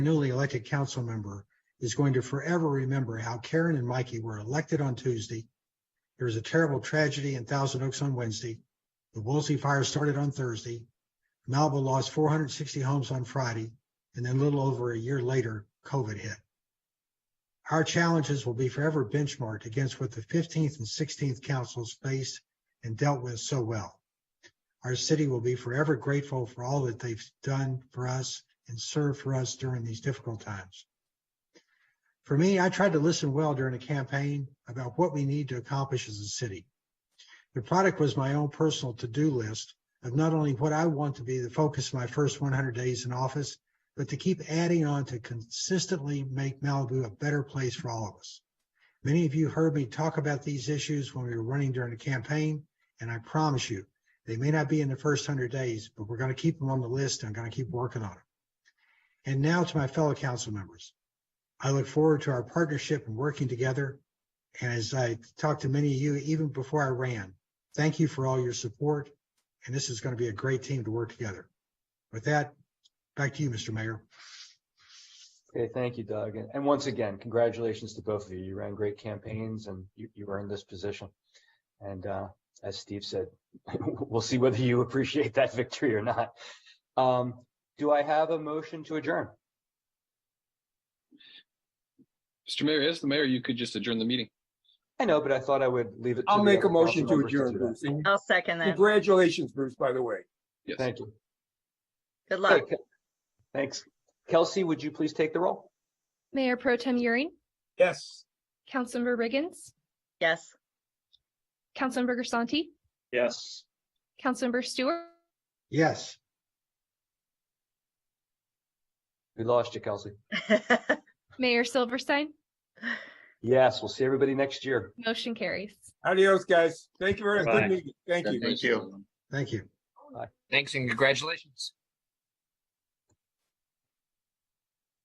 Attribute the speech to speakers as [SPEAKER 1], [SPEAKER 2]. [SPEAKER 1] newly elected council member is going to forever remember how Karen and Mikey were elected on Tuesday. There was a terrible tragedy in Thousand Oaks on Wednesday. The Woolsey fire started on Thursday. Malibu lost four hundred and sixty homes on Friday, and then a little over a year later, COVID hit. Our challenges will be forever benchmarked against what the fifteenth and sixteenth councils faced and dealt with so well. Our city will be forever grateful for all that they've done for us and served for us during these difficult times. For me, I tried to listen well during the campaign about what we need to accomplish as a city. The product was my own personal to-do list of not only what I want to be the focus of my first 100 days in office, but to keep adding on to consistently make Malibu a better place for all of us. Many of you heard me talk about these issues when we were running during the campaign, and I promise you, they may not be in the first 100 days, but we're going to keep them on the list and I'm going to keep working on them. And now to my fellow council members. I look forward to our partnership and working together. And as I talked to many of you even before I ran, thank you for all your support. And this is going to be a great team to work together. With that, back to you, Mr. Mayor.
[SPEAKER 2] Okay, thank you, Doug. And- And once again, congratulations to both of you. You ran great campaigns and you, you earned this position. And uh, as Steve said, we'll see whether you appreciate that victory or not. Um, Do I have a motion to adjourn?
[SPEAKER 3] Mr. Mayor, as the mayor, you could just adjourn the meeting.
[SPEAKER 2] I know, but I thought I would leave it. to
[SPEAKER 4] I'll
[SPEAKER 2] the
[SPEAKER 4] make a
[SPEAKER 2] other
[SPEAKER 4] motion to
[SPEAKER 2] council members
[SPEAKER 4] adjourn,
[SPEAKER 2] do that.
[SPEAKER 4] Bruce. And
[SPEAKER 5] I'll second that.
[SPEAKER 4] Congratulations, Bruce, by the way.
[SPEAKER 3] Yes.
[SPEAKER 2] Thank you.
[SPEAKER 5] Good luck.
[SPEAKER 2] Okay. Thanks. Kelsey, would you please take the roll?
[SPEAKER 6] Mayor Pro Tem Euring,
[SPEAKER 4] Yes.
[SPEAKER 6] Councilmember Riggins,
[SPEAKER 5] Yes.
[SPEAKER 6] Councilmember Grisanti,
[SPEAKER 2] Yes.
[SPEAKER 6] Councilmember Stewart,
[SPEAKER 1] Yes.
[SPEAKER 2] We lost you, Kelsey.
[SPEAKER 6] Mayor Silverstein,
[SPEAKER 2] Yes, we'll see everybody next year.
[SPEAKER 6] motion carries.
[SPEAKER 4] Adios, guys. Thank you very much. Good meeting. Thank you.
[SPEAKER 1] Thank you.
[SPEAKER 7] Thanks and congratulations.